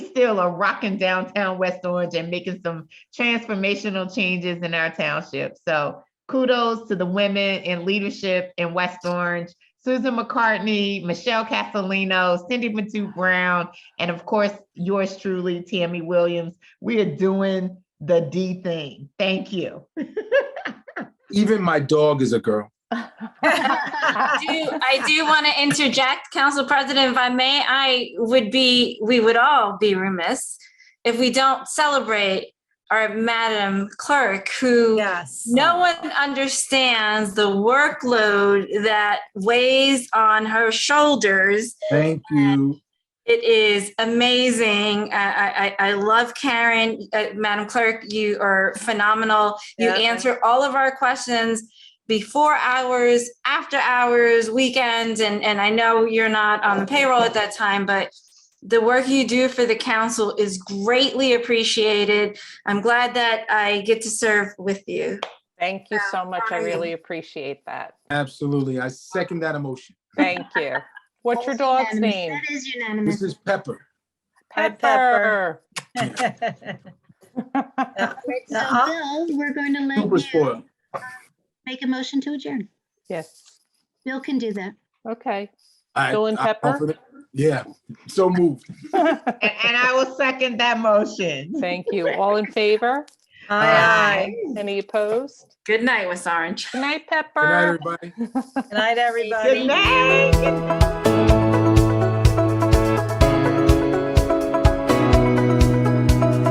still are rocking downtown West Orange and making some transformational changes in our township. So kudos to the women in leadership in West Orange. Susan McCartney, Michelle Castellino, Cindy Matu Brown, and of course, yours truly, Tammy Williams. We are doing the D thing. Thank you. Even my dog is a girl. do, I do want to interject, Council President, if I may, I would be, we would all be remiss if we don't celebrate our Madam Clerk, who Yes. no one understands the workload that weighs on her shoulders. Thank you. It is amazing. I, I, I I love Karen. Uh, Madam Clerk, you are phenomenal. You Yeah. answer all of our questions before hours, after hours, weekends. And, and I know you're not on the payroll at that time, but the work you do for the council is greatly appreciated. I'm glad that I get to serve with you. Thank you so much. I Brian. really appreciate that. Absolutely. I second that emotion. Thank you. What's your dog's name? That is This unanimous. is Pepper. Pepper. Pepper. Right, So Uh-uh. Bill, we're going to Super let spoiled. you make a motion to adjourn. Yes. Bill can do that. Okay. I- Bill and I Pepper? offer the- Yeah, so moved. And, and I will second that motion. Thank you. All in favor? Aye. Any opposed? Good night, West Orange. Good night, Good night, Pepper. everybody. Good night, Good everybody. night.